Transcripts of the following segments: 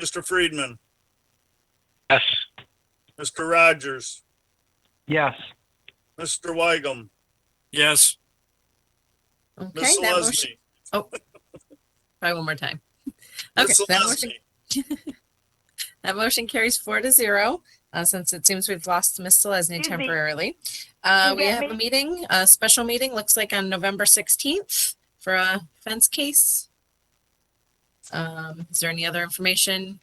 Mr. Friedman, Yes. Mr. Rogers, Yes. Mr. Weigum, Yes, Ms. Okay, that motion, Lesney. try one more time. Okay, Ms. that motion, Lesney, that motion carries four to zero, uh, since it seems we've lost Ms. Selesny Excuse me. temporarily. Uh, Mm-hmm. You we get have a me? meeting, a special meeting, looks like on November sixteenth for a fence case. Um, is there any other information?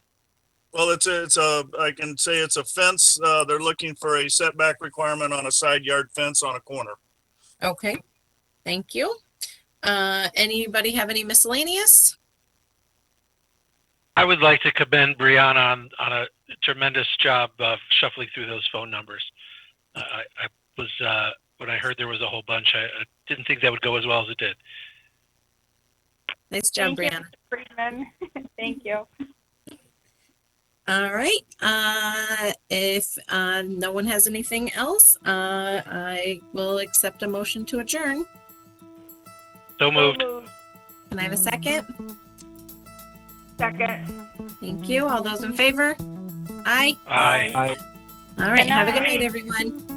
Well, it's a, it's a, I can say it's a fence. Uh, they're looking for a setback requirement on a side yard fence on a corner. Okay, thank you. Uh, anybody have any miscellaneous? I would like to commend Brianna on, on a tremendous job of shuffling through those phone numbers. I, I I was, uh, when I heard there was a whole bunch, I, I didn't think that would go as well as it did. Nice job, Thank you, Brianna. Friedman. Thank you. All right, uh, if, uh, no one has anything else, uh, I will accept a motion to adjourn. So moved. Can I have a second? Second. Thank you. All those in favor? Aye. Aye. All right, have a good Aye. night, everyone.